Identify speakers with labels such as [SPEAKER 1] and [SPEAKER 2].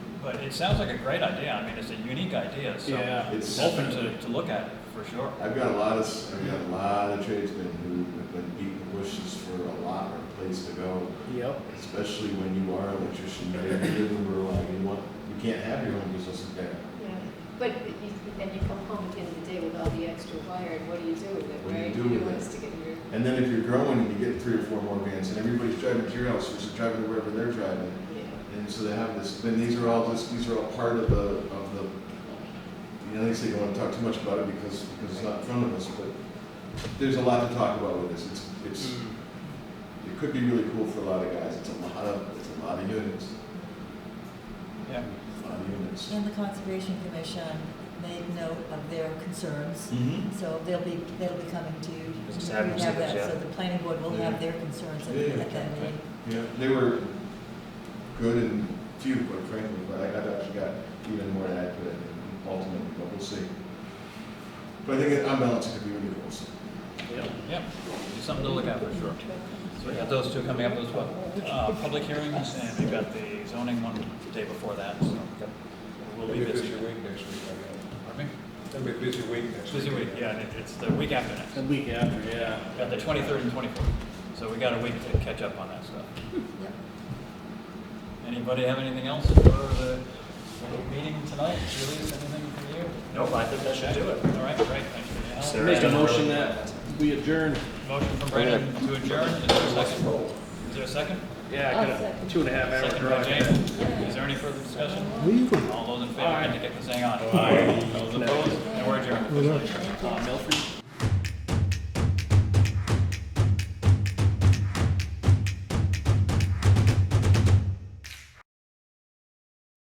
[SPEAKER 1] But it sounds like a great idea. I mean, it's a unique idea, so
[SPEAKER 2] Yeah.
[SPEAKER 1] it's
[SPEAKER 3] It's-
[SPEAKER 1] open to, to look at for sure.
[SPEAKER 3] I've got a lot of, s- I've got a lot of tradesmen who have been beating the bushes for a lot or a place to go,
[SPEAKER 2] Yep.
[SPEAKER 3] especially when you are an electrician, you live in rural, ag, you want, you can't have your own business in town.
[SPEAKER 4] Yeah, but you, then you come home at the end of the day with all the extra wire, and what do you do with it,
[SPEAKER 3] What do you
[SPEAKER 4] right?
[SPEAKER 3] do with
[SPEAKER 4] don't want
[SPEAKER 3] it?
[SPEAKER 4] us to get your,
[SPEAKER 3] And then if you're growing and you get three or four more vans and everybody's driving to your house, which is driving to wherever they're driving.
[SPEAKER 4] yeah,
[SPEAKER 3] And so they have this, then these are all just, these are all part of the, of the, you know, they say you don't want to talk too much about it because, because it's not in front of us, but there's a lot to talk about with this. It's, it's,
[SPEAKER 5] Hmm.
[SPEAKER 3] it could be really cool for a lot of guys. It's a lot of, it's a lot of units,
[SPEAKER 1] Yeah.
[SPEAKER 3] a lot of units.
[SPEAKER 6] And the Conservation Commission made note of their concerns,
[SPEAKER 3] Mm-hmm.
[SPEAKER 6] so they'll be, they'll be coming to you.
[SPEAKER 5] Just
[SPEAKER 6] We
[SPEAKER 5] have them
[SPEAKER 6] have
[SPEAKER 5] see us,
[SPEAKER 6] that, So
[SPEAKER 5] yeah.
[SPEAKER 6] the planning board will
[SPEAKER 3] Yeah.
[SPEAKER 6] have their concerns at
[SPEAKER 3] Yeah,
[SPEAKER 6] at that
[SPEAKER 3] yeah.
[SPEAKER 6] meeting.
[SPEAKER 3] Yeah, they were good and few, quite frankly, but I, I've actually got even more to add to it ultimately, but we'll see. But I think on balance, it could be really cool. so.
[SPEAKER 2] Yep.
[SPEAKER 1] Yeah, it's something to look at for sure. So we got those two coming up as well. Uh, public hearings, and we've got the zoning one the day before that, so we'll
[SPEAKER 7] It'll
[SPEAKER 1] be
[SPEAKER 7] be a
[SPEAKER 1] busy.
[SPEAKER 7] busy week next week, I
[SPEAKER 1] Pardon me?
[SPEAKER 7] guess. It'll be a busy week next week.
[SPEAKER 1] Busy week, yeah, and it- it's the week after next.
[SPEAKER 2] The week after, yeah.
[SPEAKER 1] We've Got the twenty-third and twenty-fourth, so we got a week to catch up on that stuff.
[SPEAKER 6] Yep.
[SPEAKER 1] Anybody have anything else for the the meeting tonight? Julie, is anything from you?
[SPEAKER 5] Nope, I think that should do it.
[SPEAKER 1] All right, great, thank you. Alan.
[SPEAKER 5] Sarah.
[SPEAKER 2] Make a motion that we adjourn.
[SPEAKER 1] Motion from Brandon to adjourn, is there a second? Is there a second?
[SPEAKER 2] Yeah, I got a two and a half hour
[SPEAKER 1] Second by
[SPEAKER 2] drive.
[SPEAKER 1] James, is there any further discussion? All those in favor indicate by saying aye. All Those opposed, and we're adjourned.
[SPEAKER 2] Uh, Milford?